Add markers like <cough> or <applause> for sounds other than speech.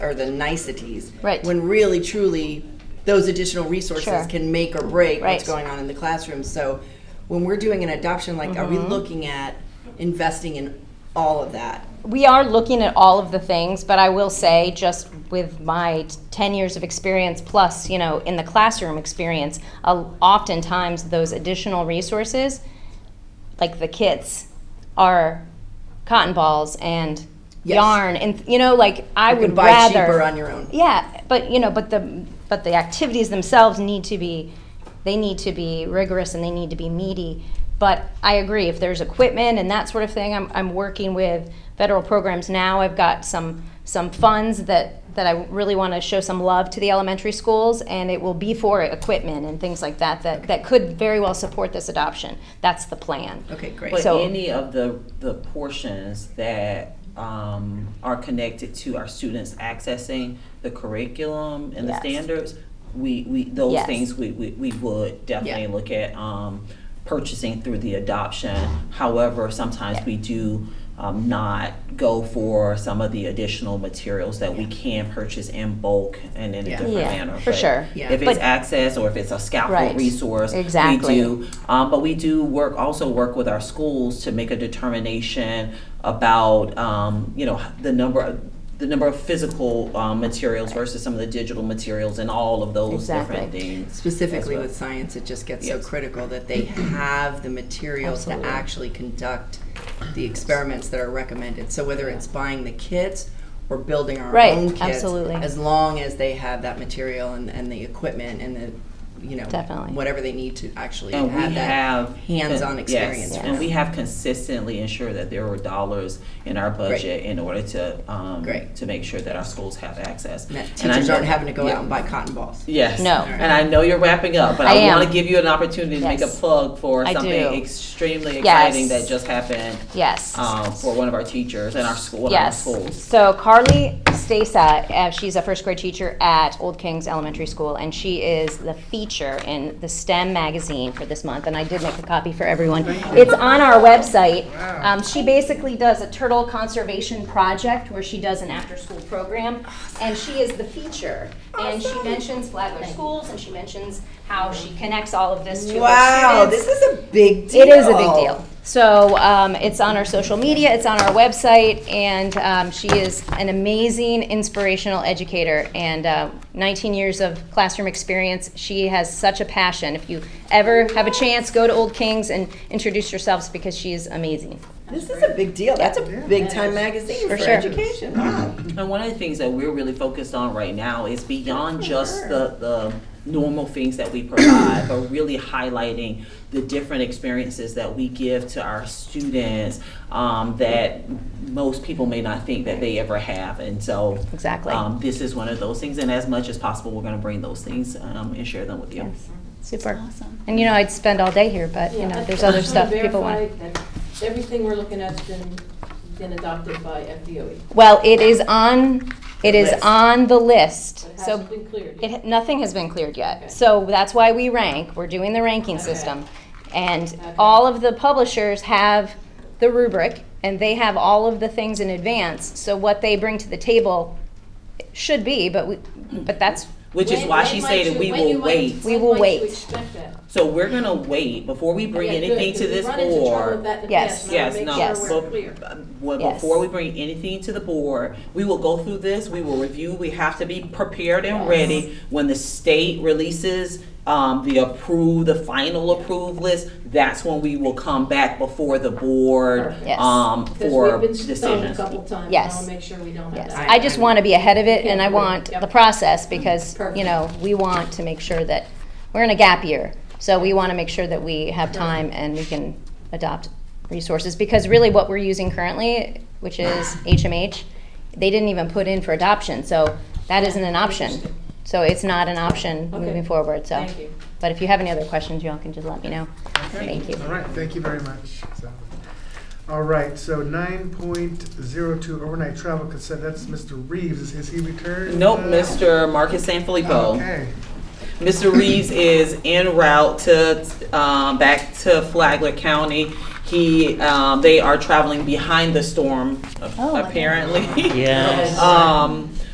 or the niceties. Right. When really, truly, those additional resources Sure. can make or break what's Right. going on in the classroom. So when we're doing an adoption, like, are we Mm-hmm. looking at investing in all of that? we are looking at all of the things, but I will say, just with my t- 10 years of experience plus, you know, in the classroom experience, uh, oftentimes those additional resources, like the kits, are cotton balls and Yes. yarn, and you know, like I You would can buy rather cheaper on your own. yeah, but you know, but the but the activities themselves need to be they need to be rigorous and they need to be meaty. But I agree if there's equipment and that sort of thing, I'm I'm working with federal programs now. I've got some some funds that that I really want to show some love to the elementary schools and it will be for equipment and things like that that that could very well support this adoption. That's the plan. Okay, great. But So- any of the, the portions that um, are connected to our students accessing the curriculum and the Yes. standards, we, we, those Yes. things, we, we, we would definitely Yeah. look at um, purchasing through the adoption. However, sometimes we do um, not go for some of the additional materials that we can purchase in bulk and in a Yeah. different Yeah, manner. for But sure. Yeah. If it's But- access or if it's a Right. scaffold resource, we Exactly. do um, but we do work, also work with our schools to make a determination about, um, you know, the number of, the number of physical, um, materials versus some of the digital materials and all of those different Exactly. things. Specifically as well. with science, it just gets so Yes. critical that <clears throat> they have the materials to Absolutely. actually conduct the experiments that are recommended. So whether it's buying the kits or building our Right, own kits, absolutely. as long as they have that material and, and the equipment and the, you know, Definitely. whatever they need to actually And have we that have. hands-on yes, experience. And we have consistently ensured that there were dollars in our budget in order to, um, Great. to make sure that our schools have access. And that And I teachers aren't know- having to go yeah. out and buy cotton balls. Yes. No. And I know you're wrapping up, but I I, am. want to give you an opportunity to make a Yes. plug for I something do. Yes. extremely exciting that just happened Yes. um, for one of our teachers in our school. one of Yes. Our schools. So Carly Stasa, uh, she's a first grade teacher at Old Kings Elementary School, and she is the feature in the STEM magazine for this month. And I did make a copy for everyone. It's on our website. Um, she basically does a turtle conservation project where she does an after school program, and she is the feature. And she mentions Flagler Schools, and she mentions how she connects all of this to her Wow, students. this is a big deal. It is a big deal. So um, it's on our social media, it's on our website, and um, she is an amazing inspirational educator. And uh, 19 years of classroom experience, she has such a passion. If you ever have a chance, go to Old Kings and introduce yourselves because she is amazing. This is a big deal. That's a big time magazine for sure. Mm-hmm. education. Wow. And one of the things that we're really focused on right now is beyond just the, the normal things that we provide, but really highlighting the different experiences that we give to our students um, that most people may not think that they ever have. And so, Exactly. um, this is one of those things. And as much as possible, we're going to bring those things um, and share them with you. Super. Awesome. And you know, I'd spend all day here, but you Yeah, know, I there's just <laughs> other wanna stuff people verify want. that Everything we're looking at's been, been adopted by FDOE. Well, it is on, it is List. on the list. It So hasn't been cleared. yet. It, nothing has been cleared Okay. yet. So that's why we rank, we're doing the ranking Okay. system. And Okay. all of the publishers have the rubric, and they have all of the things in advance. So what they bring to the table should be, but we, but that's, Which is When- why when she might stated you- we when will you might- wait. We when will might you wait. expect that? So we're going to wait before we bring Yeah, good, anything to 'cause we this run into trouble board. with that in the Yes. past, and I Yes, wanna no. um, Make Yes. sure we're clear. Well, Yes. before we bring anything to the board, we will go through this, we will review, we have to be prepared and ready. When the state releases, um, the approved, the final approved list, that's when we will come back before the board, Yes. um, 'Cause for we've been stoned a decisions. couple times, and I Yes. wanna make sure we don't have yes. that. I just want to be ahead of it, and I Yeah. want Yep. the process, because, you Perfect. know, we want to make sure that, we're in a gap year. So we want to make sure that we have time and we can adopt resources, because really what we're using currently, which is HMH, they didn't even put in for adoption, so that isn't an option. So it's not an option Okay. moving forward, so. Thank you. But if you have any other questions, y'all can just let me know. Okay. Thank you. All right, thank you very much. So- All right, so nine point zero two overnight travel consent, that's Mr. Reeves, is, is he returned? Nope, Uh, Mr. Marcus Sanfilippo. Okay, Mr. Reeves is en route to, um, back to Flagler County. He, <laughs> um, they are traveling behind the storm, apparently. Yes. Um,